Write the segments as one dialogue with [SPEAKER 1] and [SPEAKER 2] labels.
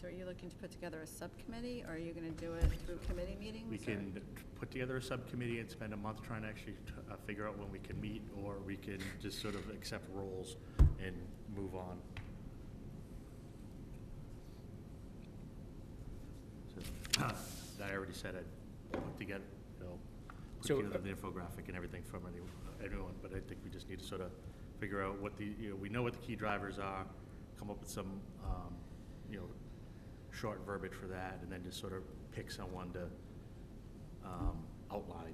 [SPEAKER 1] So are you looking to put together a subcommittee, or are you gonna do it through committee meetings?
[SPEAKER 2] We
[SPEAKER 1] or-
[SPEAKER 2] can t- put together a subcommittee and spend a month trying to actually t- uh, figure out when we can meet, or we can just sort of accept roles and move on. So, I already said I put together, you know,
[SPEAKER 3] So,
[SPEAKER 2] put together
[SPEAKER 3] uh,
[SPEAKER 2] the infographic and everything from any- anyone, but I think we just need to sort of figure out what the, you know, we know what the key drivers are, come up with some, um, you know, short verbiage for that, and then just sort of pick someone to um, outline.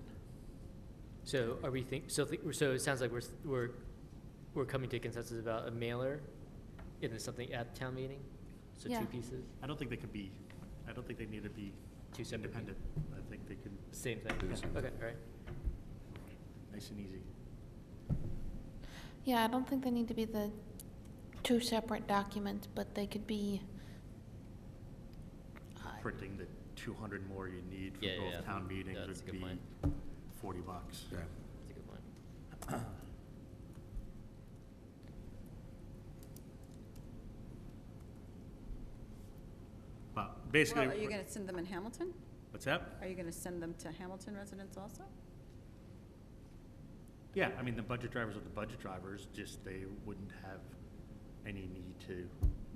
[SPEAKER 3] So are we think, so, thi- so it sounds like we're, s- we're, we're coming to a consensus about a mailer and then something at town meeting? So
[SPEAKER 4] Yeah.
[SPEAKER 3] two pieces,
[SPEAKER 2] I don't think they could be, I don't think they need to be
[SPEAKER 3] Two separate people.
[SPEAKER 2] independent. I think they can,
[SPEAKER 3] same thing,
[SPEAKER 2] Do the same
[SPEAKER 3] okay,
[SPEAKER 2] thing.
[SPEAKER 3] all right.
[SPEAKER 2] nice and easy.
[SPEAKER 4] Yeah, I don't think they need to be the two separate documents, but they could be. uh,
[SPEAKER 2] Printing the 200 more you need for
[SPEAKER 3] Yeah, yeah,
[SPEAKER 2] both town
[SPEAKER 3] yeah,
[SPEAKER 2] meetings
[SPEAKER 3] that's a
[SPEAKER 2] would
[SPEAKER 3] good
[SPEAKER 2] be
[SPEAKER 3] point.
[SPEAKER 2] 40 bucks.
[SPEAKER 5] Yeah.
[SPEAKER 3] That's a good point.
[SPEAKER 2] But
[SPEAKER 1] Well,
[SPEAKER 2] basically,
[SPEAKER 1] are you
[SPEAKER 2] we're-
[SPEAKER 1] gonna send them in Hamilton?
[SPEAKER 2] what's that?
[SPEAKER 1] Are you gonna send them to Hamilton residents also?
[SPEAKER 2] Yeah, I mean, the budget drivers are the budget drivers, just they wouldn't have any need to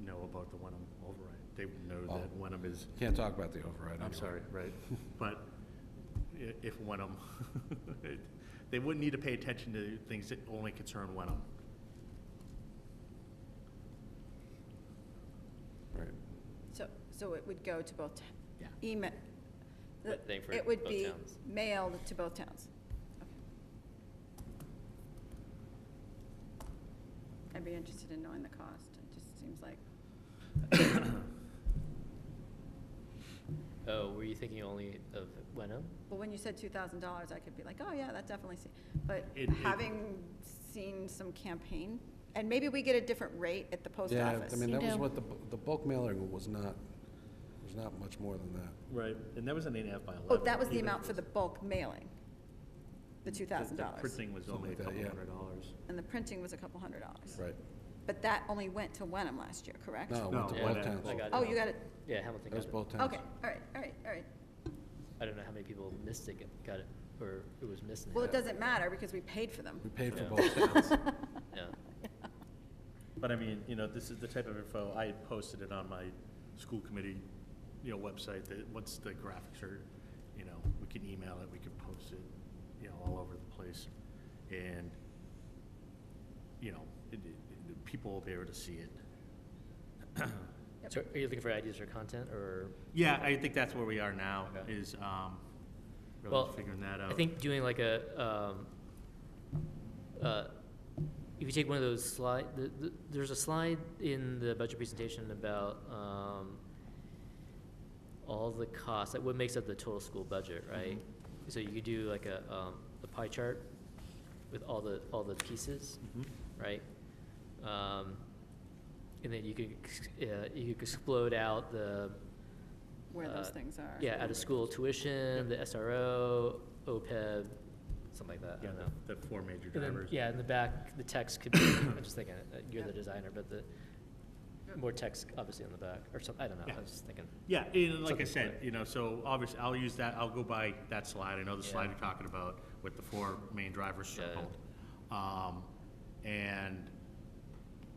[SPEAKER 2] know about the Wenham override. They would know
[SPEAKER 5] Oh.
[SPEAKER 2] that Wenham is,
[SPEAKER 5] Can't talk about the override.
[SPEAKER 2] I'm
[SPEAKER 5] anyway.
[SPEAKER 2] sorry, right? But i- if Wenham, they wouldn't need to pay attention to things that only concern Wenham.
[SPEAKER 5] Right.
[SPEAKER 1] So, so it would go to both, t-
[SPEAKER 2] Yeah.
[SPEAKER 1] email. the-
[SPEAKER 3] But thing for
[SPEAKER 1] It would
[SPEAKER 3] both
[SPEAKER 1] be
[SPEAKER 3] towns.
[SPEAKER 1] mailed to both towns. Okay. I'd be interested in knowing the cost, it just seems like,
[SPEAKER 3] Oh, were you thinking only of Wenham?
[SPEAKER 1] well, when you said two thousand dollars, I could be like, oh, yeah, that definitely se-" but
[SPEAKER 2] It- it-
[SPEAKER 1] having seen some campaign, and maybe we get a different rate at the post
[SPEAKER 5] Yeah,
[SPEAKER 1] office.
[SPEAKER 5] I mean,
[SPEAKER 4] You
[SPEAKER 5] that was
[SPEAKER 4] do.
[SPEAKER 5] what the, bu- the bulk mailing was not, was not much more than that.
[SPEAKER 2] Right, and that was an eight and a half by
[SPEAKER 1] Oh,
[SPEAKER 2] eleven.
[SPEAKER 1] that was the
[SPEAKER 2] even
[SPEAKER 1] amount
[SPEAKER 2] if
[SPEAKER 1] for the
[SPEAKER 2] it
[SPEAKER 1] bulk mailing, the two
[SPEAKER 2] was-
[SPEAKER 1] thousand dollars,
[SPEAKER 2] Printing was
[SPEAKER 5] Something
[SPEAKER 2] only a
[SPEAKER 5] like that,
[SPEAKER 2] couple
[SPEAKER 5] yeah.
[SPEAKER 2] hundred dollars.
[SPEAKER 1] and the printing was a couple hundred dollars.
[SPEAKER 5] Right.
[SPEAKER 1] But that only went to Wenham last year, correct?
[SPEAKER 5] No, it went to
[SPEAKER 2] No,
[SPEAKER 5] both
[SPEAKER 2] that-
[SPEAKER 5] towns.
[SPEAKER 3] I got it.
[SPEAKER 1] Oh, you got it,
[SPEAKER 3] Yeah, Hamilton
[SPEAKER 5] That was
[SPEAKER 3] got it.
[SPEAKER 5] both towns.
[SPEAKER 1] okay, all right, all right, all right.
[SPEAKER 3] I don't know how many people missed it, got it, or it was missing.
[SPEAKER 1] Well, it doesn't matter because we paid for them.
[SPEAKER 5] We paid for
[SPEAKER 3] Yeah.
[SPEAKER 5] both towns.
[SPEAKER 3] Yeah,
[SPEAKER 2] But I mean, you know, this is the type of info, I had posted it on my school committee, you know, website, that, once the graphics are, you know, we can email it, we can post it, you know, all over the place. And, you know, it, it, it- people will be able to see it.
[SPEAKER 1] Yep.
[SPEAKER 3] so are you looking for ideas for content, or?
[SPEAKER 2] Yeah, I think that's where we are now,
[SPEAKER 3] Okay.
[SPEAKER 2] is, um, really
[SPEAKER 3] Well,
[SPEAKER 2] figuring that out.
[SPEAKER 3] I think doing like a, um, uh, if you take one of those slide, the, the, there's a slide in the budget presentation about, um, all the costs, like what makes up the total school budget,
[SPEAKER 2] Mm-hmm.
[SPEAKER 3] right? So you could do like a, um, a pie chart with all the, all the pieces,
[SPEAKER 2] Mhm.
[SPEAKER 3] right? Um, and then you could, ex- uh, you could explode out the,
[SPEAKER 1] Where those
[SPEAKER 3] uh,
[SPEAKER 1] things are.
[SPEAKER 3] Yeah, out of school tuition, the SRO, OPEB, E something like that, I
[SPEAKER 2] Yeah,
[SPEAKER 3] don't know.
[SPEAKER 2] the, the four major
[SPEAKER 3] And then,
[SPEAKER 2] drivers.
[SPEAKER 3] yeah, in the back, the text could be, I'm just thinking, uh, you're the
[SPEAKER 1] Yeah.
[SPEAKER 3] designer, but the, more text obviously on the back, or something, I don't know,
[SPEAKER 2] Yeah.
[SPEAKER 3] I was just thinking.
[SPEAKER 2] Yeah, and like I
[SPEAKER 3] Something
[SPEAKER 2] said,
[SPEAKER 3] quick.
[SPEAKER 2] you know, so obviously, I'll use that, I'll go by that slide, I know the slide
[SPEAKER 3] Yeah.
[SPEAKER 2] you're talking about with the four main drivers
[SPEAKER 3] Yeah.
[SPEAKER 2] circled. Um, and,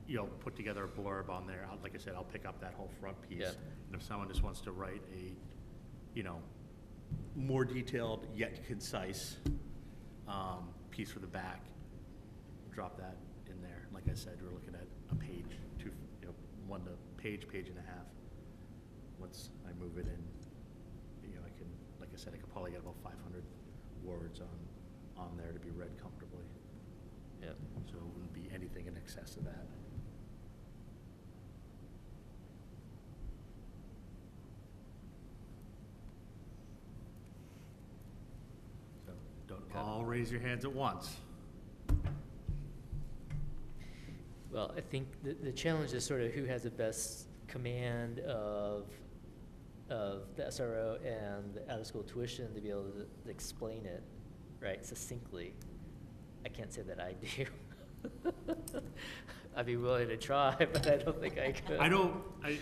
[SPEAKER 2] you know, put together a blurb on there, I'll- like I said, I'll pick up that whole front piece.
[SPEAKER 3] Yeah.
[SPEAKER 2] And if someone just wants to write a, you know, more detailed yet concise, um, piece for the back, drop that in there. Like I said, we're looking at a page, two, you know, one to page, page and a half. Once I move it in, you know, I can, like I said, I could probably get about five hundred words on, on there to be read comfortably.
[SPEAKER 3] Yeah,
[SPEAKER 2] So it wouldn't be anything in excess of that. So don't
[SPEAKER 3] Okay.
[SPEAKER 2] all raise your hands at once.
[SPEAKER 3] well, I think the, the challenge is sort of who has the best command of, of the SRO and the out-of-school tuition to be able to explain it, right, succinctly. I can't say that I do. I'd be willing to try, but I don't think I could.
[SPEAKER 2] I don't, I,